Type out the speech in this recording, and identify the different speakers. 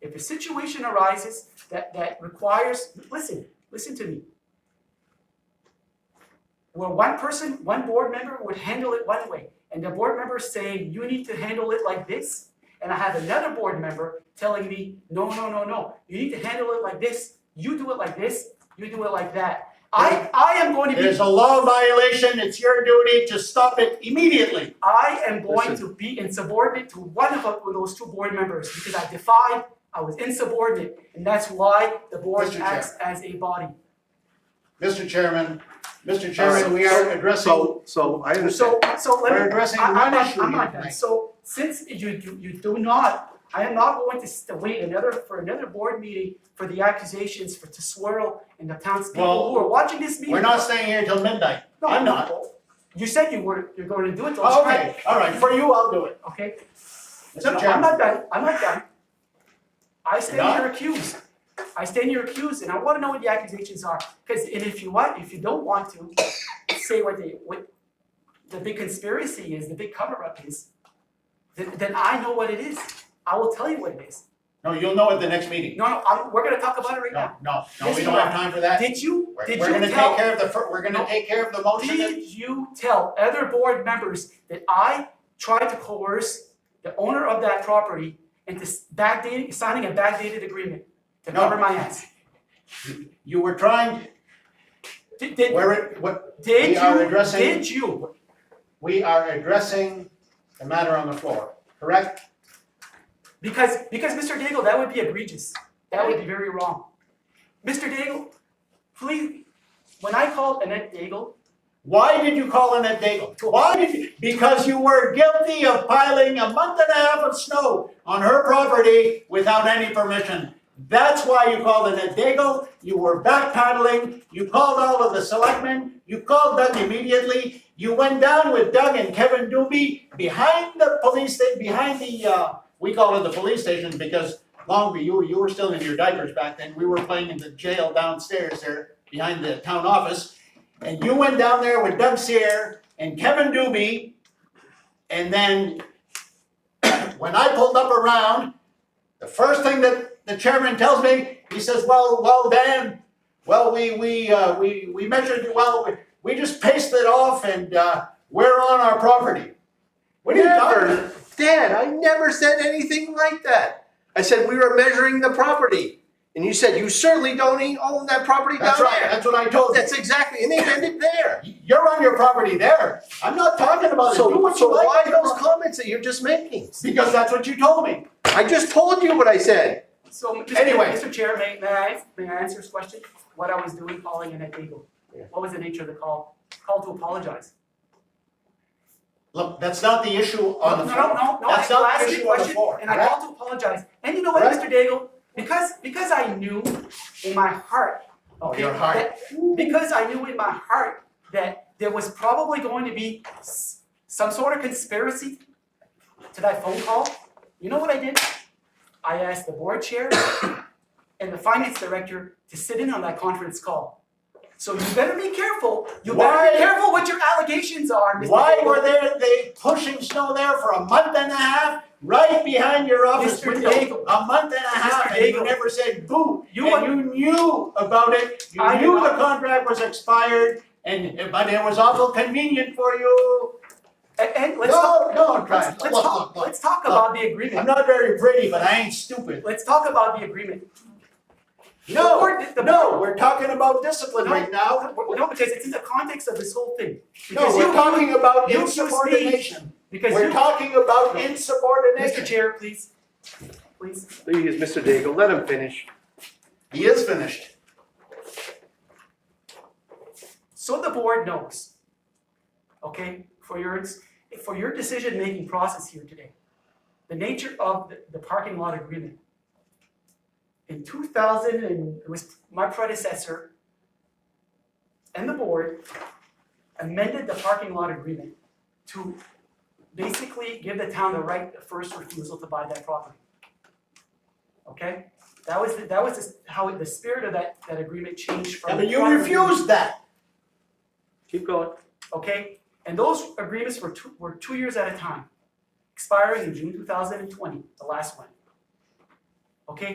Speaker 1: if a situation arises that, that requires, listen, listen to me. Where one person, one board member would handle it one way, and the board member is saying, you need to handle it like this, and I have another board member telling me, no, no, no, no, you need to handle it like this, you do it like this, you do it like that. I, I am going to be
Speaker 2: There's a law violation, it's your duty to stop it immediately.
Speaker 1: I am going to be insubordinate to one of uh, those two board members because I defied, I was insubordinate, and that's why the board
Speaker 2: Mr. Chair.
Speaker 1: acts as a body.
Speaker 2: Mr. Chairman, Mr. Chairman, we are addressing,
Speaker 3: So, so I
Speaker 1: So,
Speaker 3: understand,
Speaker 1: so let me.
Speaker 2: We're addressing
Speaker 1: I- I'm
Speaker 2: one
Speaker 1: not-
Speaker 2: issue
Speaker 1: I'm not
Speaker 2: here
Speaker 1: done.
Speaker 2: tonight.
Speaker 1: So since you, you, you do not, I am not going to st- wait another, for another board meeting for the accusations for to swirl and the townspeople
Speaker 2: Well,
Speaker 1: who are watching this meeting.
Speaker 2: we're not staying here till midnight.
Speaker 1: No,
Speaker 2: I'm not.
Speaker 1: You said you were, you're going to do it, last
Speaker 2: Okay, all right, for you, I'll do it.
Speaker 1: okay? No,
Speaker 2: Mr.
Speaker 1: I'm
Speaker 2: Chairman,
Speaker 1: not done, I'm not done. I stand
Speaker 2: Not?
Speaker 1: here accused. I stand here accused, and I wanna know what the accusations are, cause, and if you want, if you don't want to, say what they, what the big conspiracy is, the big cover-up is, then, then I know what it is. I will tell you what it is.
Speaker 2: no, you'll know at the next meeting.
Speaker 1: No, no, I'm, we're gonna talk about it right
Speaker 2: No,
Speaker 1: now.
Speaker 2: no, no, we
Speaker 1: Mr.
Speaker 2: don't have time for that.
Speaker 1: Did you,
Speaker 2: We're
Speaker 1: did
Speaker 2: we're
Speaker 1: you
Speaker 2: gonna take
Speaker 1: tell,
Speaker 2: care of the, fir- we're
Speaker 1: No.
Speaker 2: gonna take care of the motion. that-
Speaker 1: did you tell other board members that I tried to coerce the owner of that property into s- backdating, signing a backdated agreement to
Speaker 2: No.
Speaker 1: cover my ass?
Speaker 2: You were trying,
Speaker 1: Did, did,
Speaker 2: we're, what,
Speaker 1: did
Speaker 2: we are
Speaker 1: you,
Speaker 2: addressing-
Speaker 1: did you,
Speaker 2: we are addressing the matter on the floor, correct?
Speaker 1: because, because Mr. Daigle, that would be egregious, that would be very wrong. Mr. Daigle, please, when I called Annette Daigle,
Speaker 2: Why did you call in at Daigle? Why did you? Because you were guilty of piling a month and a half of snow on her property without any permission. That's why you called in at Daigle. You were backpedaling. You called all of the selectmen. You called Doug immediately. You went down with Doug and Kevin Doobie behind the police, sta- behind the, uh, we call it the police station because longer you, you were still in your diapers back then. We were playing in the jail downstairs there behind the town office. And you went down there with Doug Sear and Kevin Doobie. And then when I pulled up around, the first thing that the chairman tells me, he says, well, well, Dan, well, we, we, uh, we, we measured, well, we- we just paced it off and, uh, we're on our property. What are you talking about?
Speaker 3: never, Dad, I never said anything like that. I said we were measuring the property, and you said you certainly don't e- own that property down
Speaker 2: That's right,
Speaker 3: there.
Speaker 2: that's what I told you.
Speaker 3: That's exactly, and they ended there.
Speaker 2: You're on your property there. I'm not talking about it. Do
Speaker 3: So,
Speaker 2: what
Speaker 3: so
Speaker 2: you like.
Speaker 3: why
Speaker 2: with your
Speaker 3: those
Speaker 2: property.
Speaker 3: comments that you're just making?
Speaker 2: Because that's what you told me.
Speaker 3: I just told you what I said.
Speaker 1: so, Mr.
Speaker 2: Anyway.
Speaker 1: Mr. Chair, may, may I, may I answer his question? What I was doing calling Annette Daigle,
Speaker 3: Yeah.
Speaker 1: what was the nature of the call? Call to apologize.
Speaker 2: Look, that's not the issue on the
Speaker 1: No,
Speaker 2: floor.
Speaker 1: No, no, no, I
Speaker 2: That's not
Speaker 1: asked
Speaker 2: the
Speaker 1: you a
Speaker 2: issue on the
Speaker 1: question,
Speaker 2: floor.
Speaker 1: and I
Speaker 2: correct?
Speaker 1: called to apologize, and you know what,
Speaker 2: Right.
Speaker 1: Mr. Daigle? Because, because I knew in my heart,
Speaker 2: Oh,
Speaker 1: okay,
Speaker 2: your heart.
Speaker 1: that- because I knew in my heart that there was probably going to be s- some sort of conspiracy to that phone call, you know what I did? I asked the board chair and the finance director to sit in on that conference call. So you better be careful, you better
Speaker 2: Why-
Speaker 1: be careful what your allegations are, Mr.
Speaker 2: Why
Speaker 1: Daigle.
Speaker 2: were they, they pushing snow there for a month and a half, right behind your office
Speaker 1: Mr.
Speaker 2: window?
Speaker 1: Daigle.
Speaker 2: A month and a half,
Speaker 1: Mr.
Speaker 2: and you
Speaker 1: Daigle.
Speaker 2: never said boo.
Speaker 1: You
Speaker 2: And
Speaker 1: are-
Speaker 2: you knew about it, you
Speaker 1: I do
Speaker 2: knew the
Speaker 1: not.
Speaker 2: contract was expired, and, but it was awful convenient for you.
Speaker 1: And, and let's talk,
Speaker 2: No, no, try
Speaker 1: let's,
Speaker 2: it.
Speaker 1: let's
Speaker 2: Look,
Speaker 1: talk,
Speaker 2: look, look.
Speaker 1: let's talk about the agreement.
Speaker 2: I'm not very pretty, but I ain't stupid.
Speaker 1: Let's talk about the agreement. The
Speaker 2: No,
Speaker 1: board- the
Speaker 2: no,
Speaker 1: board-
Speaker 2: we're talking about discipline
Speaker 1: No.
Speaker 2: right now.
Speaker 1: No, because it's in the context of this whole thing.
Speaker 2: No,
Speaker 1: Because
Speaker 2: we're
Speaker 1: you,
Speaker 2: talking about
Speaker 1: you accused me.
Speaker 2: insubordination.
Speaker 1: because
Speaker 2: We're
Speaker 1: you,
Speaker 2: talking about
Speaker 1: Mr.
Speaker 2: insubordination.
Speaker 1: Chair, please, please.
Speaker 3: Please, Mr. Daigle, let him finish.
Speaker 2: He is finished.
Speaker 1: So the board knows, okay, for your, for your decision-making process here today, the nature of the- the parking lot agreement. In two thousand and, it was my predecessor and the board amended the parking lot agreement to basically give the town the right of first refusal to buy that property. Okay? That was, the- that was the- how the spirit of that, that agreement changed from.
Speaker 2: Yeah,
Speaker 1: the
Speaker 2: but you
Speaker 1: prior agreement.
Speaker 2: refused that.
Speaker 3: Keep going.
Speaker 1: okay? And those agreements were two, were two years at a time, expiring in June two thousand and twenty, the last one. Okay,